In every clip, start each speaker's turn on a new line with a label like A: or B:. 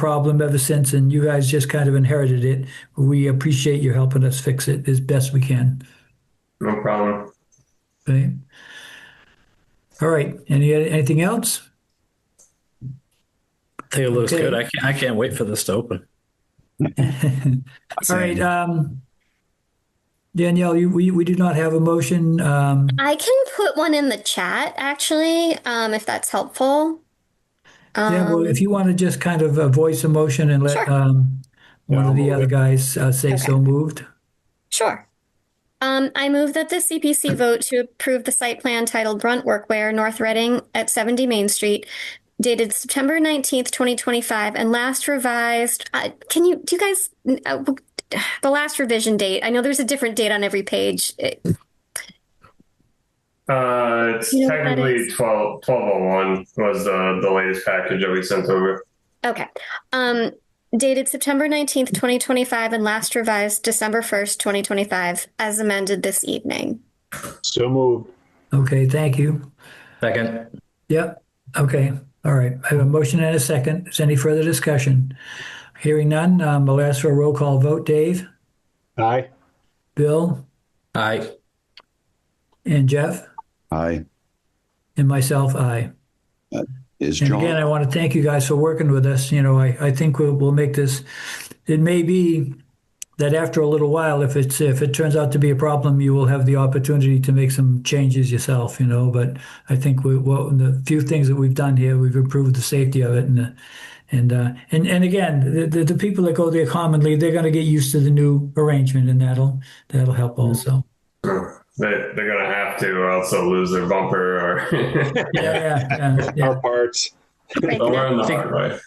A: problem ever since, and you guys just kind of inherited it. We appreciate you helping us fix it as best we can.
B: No problem.
A: Okay. All right. Any anything else?
C: I think it looks
A: Okay.
C: good. I can't, I can't wait for this to open.
A: All right. Um, Danielle, you, we we do not have a motion. Um,
D: I can put one in the chat actually, um, if that's helpful.
A: yeah, well,
D: Um,
A: if you want to just kind of uh, voice a motion and let
D: Sure.
A: um, one
B: Yeah,
A: of the
B: I'll
A: other guys uh, say so moved.
D: sure. Um, I move that the CPC vote to approve the site plan titled Brunt Workwear, North Reading at 70 Main Street, dated September 19th, 2025, and last revised. Uh, can you, do you guys, uh, the last revision date? I know there's a different date on every page. eh, It-
B: Uh, it's
D: You know what that
B: technically
D: is?
B: 12, 1201 was the, the latest package that we sent over.
D: Okay. Um, dated September 19th, 2025, and last revised December 1st, 2025, as amended this evening.
E: So moved.
A: Okay. Thank you.
C: Second.
A: Yep. Okay. All right. I have a motion and a second. Is any further discussion? Hearing none, um, I'll ask for a roll call vote. Dave,
E: Aye.
A: Bill,
C: Aye.
A: and Jeff,
F: Aye.
A: and myself, I.
F: Is
A: And again, I
F: John,
A: want to thank you guys for working with us. You know, I, I think we'll, we'll make this, it may be that after a little while, if it's, if it turns out to be a problem, you will have the opportunity to make some changes yourself, you know, but I think we, well, the few things that we've done here, we've improved the safety of it and, the- and, uh, and, and again, the, the, the people that go there commonly, they're going to get used to the new arrangement and that'll, that'll help also.
B: They, they're going to have to, or else they'll lose their bumper or.
A: Yeah, yeah, yeah.
E: Our parts.
D: Right
B: They'll
D: now.
B: learn the
C: Think-
B: hard way.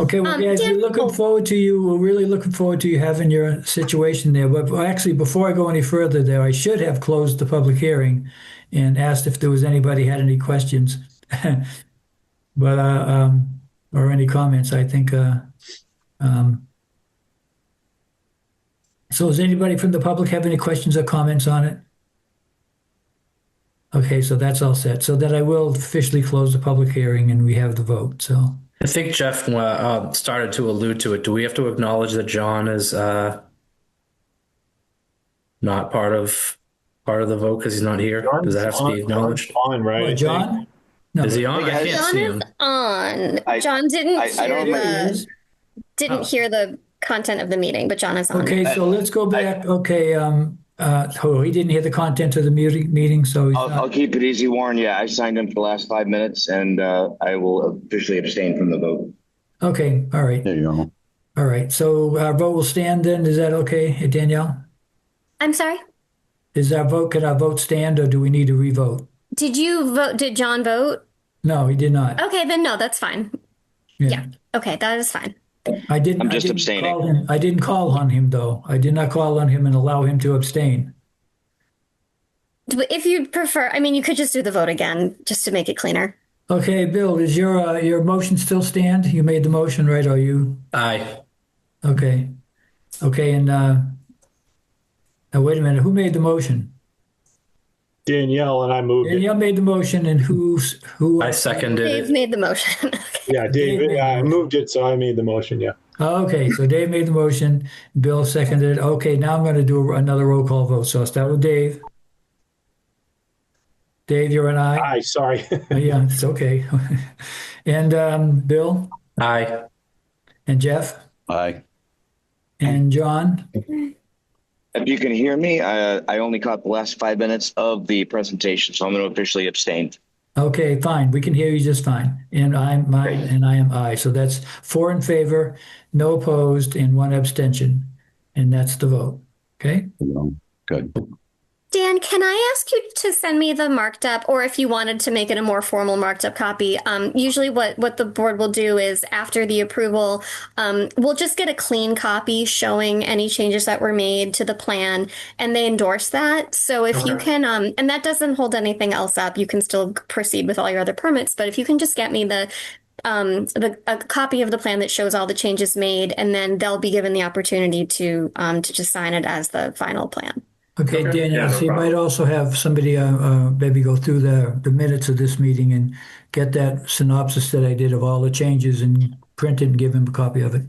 A: Okay, well,
D: Um,
A: guys,
D: Dan-
A: we're looking
D: oh.
A: forward to you. We're really looking forward to you having your situation there. But actually, before I go any further there, I should have closed the public hearing and asked if there was anybody had any questions. But, uh, um, or any comments, I think, uh, um, so does anybody from the public have any questions or comments on it? Okay, so that's all set. So then I will officially close the public hearing and we have the vote, so.
C: I think Jeff uh, uh, started to allude to it. Do we have to acknowledge that John is uh, not part of part of the vote because he's not here? Does that have to be acknowledged?
E: On, right? I
A: Well,
E: think.
A: John? No.
C: Is he on? I can't
D: John
C: see
D: is
C: him.
D: on.
F: I-
D: John didn't
F: I- I
D: hear
F: don't
A: There he
D: the
A: is.
C: Oh.
D: didn't hear the content of the meeting, but John is on.
A: Okay, so let's go back. Okay, um, uh, oh, he didn't hear the content of the muti- meeting, so he's
G: I'll, I'll
A: not.
G: keep it easy, Warren. Yeah, I signed in for the last five minutes and uh, I will officially abstain from the vote.
A: Okay, all right,
F: there you go.
A: all right. So our vote will stand then. Is that okay, Danielle?
D: I'm sorry.
A: Is our vote, can our vote stand or do we need to revote?
D: Did you vote? Did John vote?
A: No, he did not.
D: Okay, then no, that's fine. Yeah. Okay, that is fine.
A: I didn't.
G: I'm
A: I
G: just
A: didn't
G: abstaining.
A: call him- I didn't call on him though. I did not call on him and allow him to abstain.
D: But If you prefer, I mean, you could just do the vote again just to make it cleaner.
A: Okay, Bill, is your, uh, your motion still stand? You made the motion, right? Are you?
C: Aye.
A: Okay. Okay, and, uh, now wait a minute, who made the motion?
E: Danielle and I moved it.
A: Danielle made the motion and who's, who?
C: I seconded
D: Dave
C: it.
D: made the motion.
E: Yeah, David,
A: David.
E: I moved it, so I made the motion, yeah.
A: Oh, Okay, so Dave made the motion, Bill seconded. it. Okay, now I'm going to do another roll call vote. So I'll start with Dave. Dave, you're an aye? Oh,
E: Aye, sorry.
A: Yeah, it's okay. And, um, Bill
C: Aye.
A: and Jeff
F: Aye.
A: and John?
G: If you can hear me, I, I only caught the last five minutes of the presentation, so I'm going to officially abstain.
A: Okay, fine. We can hear you just fine. And I'm my and I am I. So that's four in favor, no opposed, and one abstention. And that's the vote. Okay?
F: There you go. Good.
D: Dan, can I ask you to send me the marked up, or if you wanted to make it a more formal marked up copy? Um, usually, what what the board will do is after the approval, um, we'll just get a clean copy showing any changes that were made to the plan, and they endorse that. So if you
B: Okay.
D: can, um, and that doesn't hold anything else up, you can still proceed with all your other permits. But if you can just get me the um, the a copy of the plan that shows all the changes made, and then they'll be given the opportunity to um, to just sign it as the final plan.
A: Okay,
B: Okay.
A: Daniel,
B: Yeah, no
A: so you might
B: problem.
A: also have somebody uh, uh, maybe go through the the minutes of this meeting and get that synopsis that I did of all the changes and printed and give him a copy of it.